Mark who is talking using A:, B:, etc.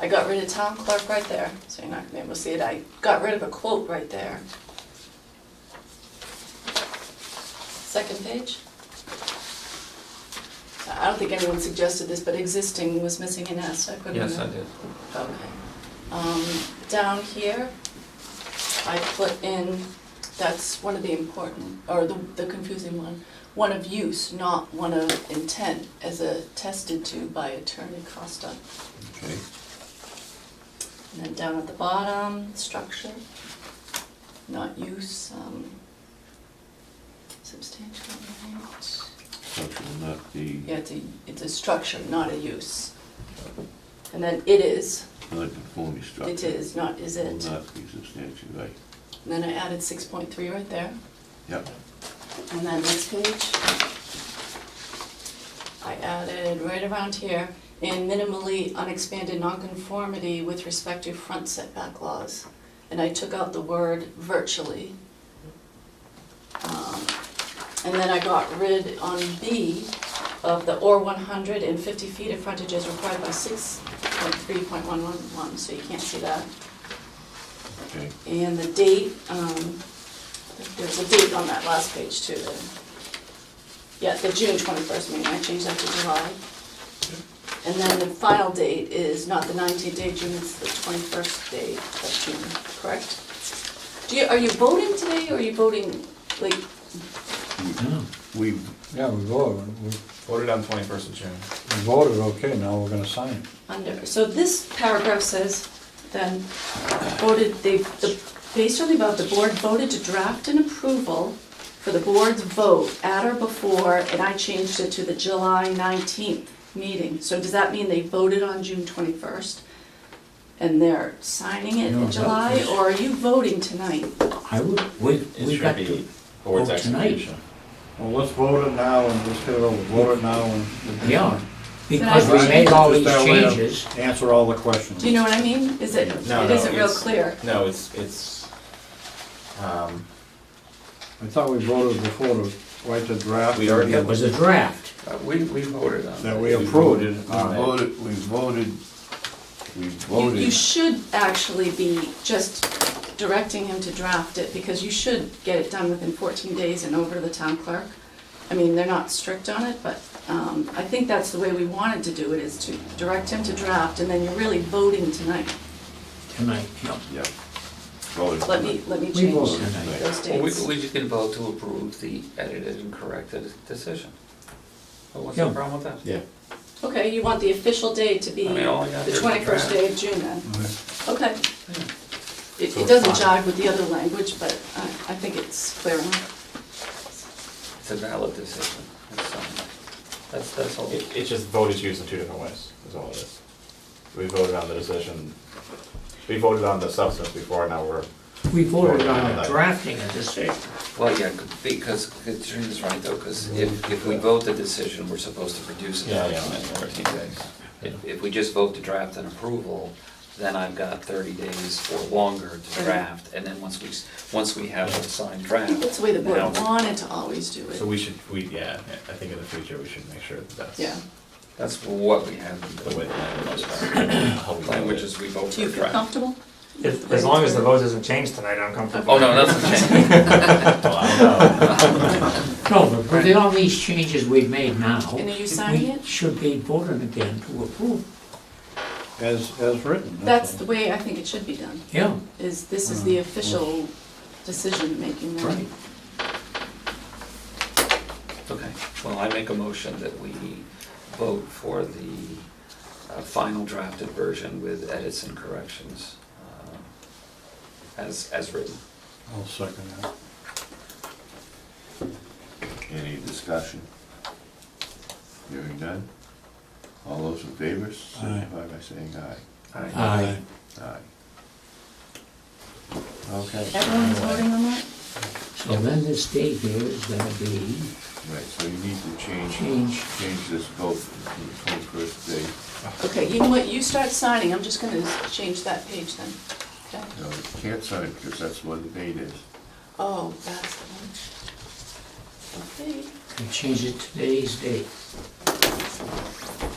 A: I got rid of town clerk right there, so you're not gonna be able to see it. I got rid of a quote right there. Second page. I don't think anyone suggested this, but existing was missing an S, I couldn't
B: Yes, I
A: remember.
B: did.
A: Okay. Um, down here, I put in, that's one of the important, or the, the confusing one, one of use, not one of intent, as attested to by attorney Costa.
C: Okay.
A: And then down at the bottom, structure, not use, um, substantial, right?
C: Structure will not be
A: Yeah, it's a, it's a structure, not a use. And then it is,
C: non-conforming structure.
A: it is, not is it.
C: Will not be substantially right.
A: And Then I added six point three right there,
C: Yep,
A: and then next page. I added right around here, in minimally unexpanded nonconformity with respect to front setback laws. And I took out the word virtually. Um, And then I got rid on B of the or one hundred and fifty feet of frontage as required by six point three point one one one, so you can't see that.
C: okay.
A: And the date, um, there's a date on that last page too. the- Yeah, the June twenty-first meeting, I changed that to July. And then the final date is not the nineteenth day of June, it's the twenty-first day of June, correct? Do you, are you voting today, or are you voting, like,
C: We,
D: Yeah, we voted, we
E: Voted on twenty-first of June.
D: we voted, okay, now we're gonna sign it.
A: under, so this paragraph says, then, voted, they, the, based on the above, the board voted to draft an approval for the board's vote at or before, and I changed it to the July nineteenth meeting, so does that mean they voted on June twenty-first? And they're signing it
F: No,
A: in
F: that
A: July,
F: was-
A: or are you voting tonight?
F: I would, we, we got
E: It should
F: to,
E: be board's
F: vote tonight.
E: execution.
D: Well, let's vote it now and just get it over, vote it now and.
F: yeah, because we made all these changes.
D: Answer all the questions.
A: Do you know what I mean? Is it,
E: No,
A: it
E: no,
A: isn't real
E: it's-
A: clear.
E: No, it's, it's, um,
D: I thought we voted before to write the draft.
E: We already
F: It was a draft.
E: uh, we, we voted on.
D: That
E: it.
D: we approved it.
C: we voted, we voted, we
A: You, you
C: voted,
A: should actually be just directing him to draft it, because you should get it done within fourteen days and over to the town clerk. I mean, they're not strict on it, but, um, I think that's the way we wanted to do it, is to direct him to draft, and then you're really voting tonight.
F: Tonight, yeah.
C: yep. Voted.
A: Let me, let me
F: We
A: change
F: voted tonight.
A: those
B: Well, we,
A: dates.
B: we just can vote to approve the edited and corrected decision. But What's
F: Yeah.
B: the problem with that?
C: Yeah.
A: Okay, you want the official day to be
B: I mean, all
A: the
B: I got there is the
A: twenty-first
B: draft.
A: day of June then?
D: Uh,
A: Okay. It,
F: So
A: it
F: it's
A: doesn't
F: fine.
A: jive with the other language, but I, I think it's clear enough.
B: It's a valid decision. It's, um, That's, that's all.
E: It, it's just voted used in two different ways, is all it is. We voted on the decision, we voted on the substance before, now we're,
F: We voted on
E: Voted.
F: the drafting of this,
B: Well, yeah, because, Katrina's right though, because if, if we vote the decision, we're supposed to produce a
E: Mm-hmm. Yeah, yeah.
B: document in fourteen days. If, if we just vote to draft an approval, then I've got thirty days or longer to
A: Right.
B: draft, and then once we, s- once we have a signed draft.
A: I think that's the way the board
B: now-
A: wanted to always do it.
E: so we should, we, yeah, I think in the future, we should make sure that that's.
A: Yeah.
B: That's what we have. in
E: The way the language is. How we
B: The
E: vote
B: Language
E: it.
B: is we vote
A: Do
B: for
A: you
B: a
A: feel
B: draft.
A: comfortable?
G: If, as long as the vote doesn't change tonight, I'm comfortable.
B: Oh, no, that's okay.
E: Well, Oh, I don't know.
F: no, but with all these changes we've made now.
A: And are you signing
F: We
A: it?
F: should be voted again to approve,
D: As, as written.
A: That's
D: all.
A: the way I think it should be done,
F: yeah,
A: is this is
G: Mm.
A: the official decision-making now.
F: right.
B: Okay, well, I make a motion that we vote for the uh, final drafted version with edits and corrections uh, as, as written.
D: I'll second that.
C: Any discussion? Hearing none? All those in favor, signify by saying aye.
F: Aye.
C: Aye. Okay.
A: Everyone's voting on that?
F: So then this date here is gonna be
C: Right, so you need to change,
F: Change.
C: change this vote to the twenty-first day.
A: Okay, you know what, you start signing, I'm just gonna change that page then. Okay.
C: No, you can't sign it because that's what the date is.
A: Oh, that's the one. Okay,
F: We change it to today's date.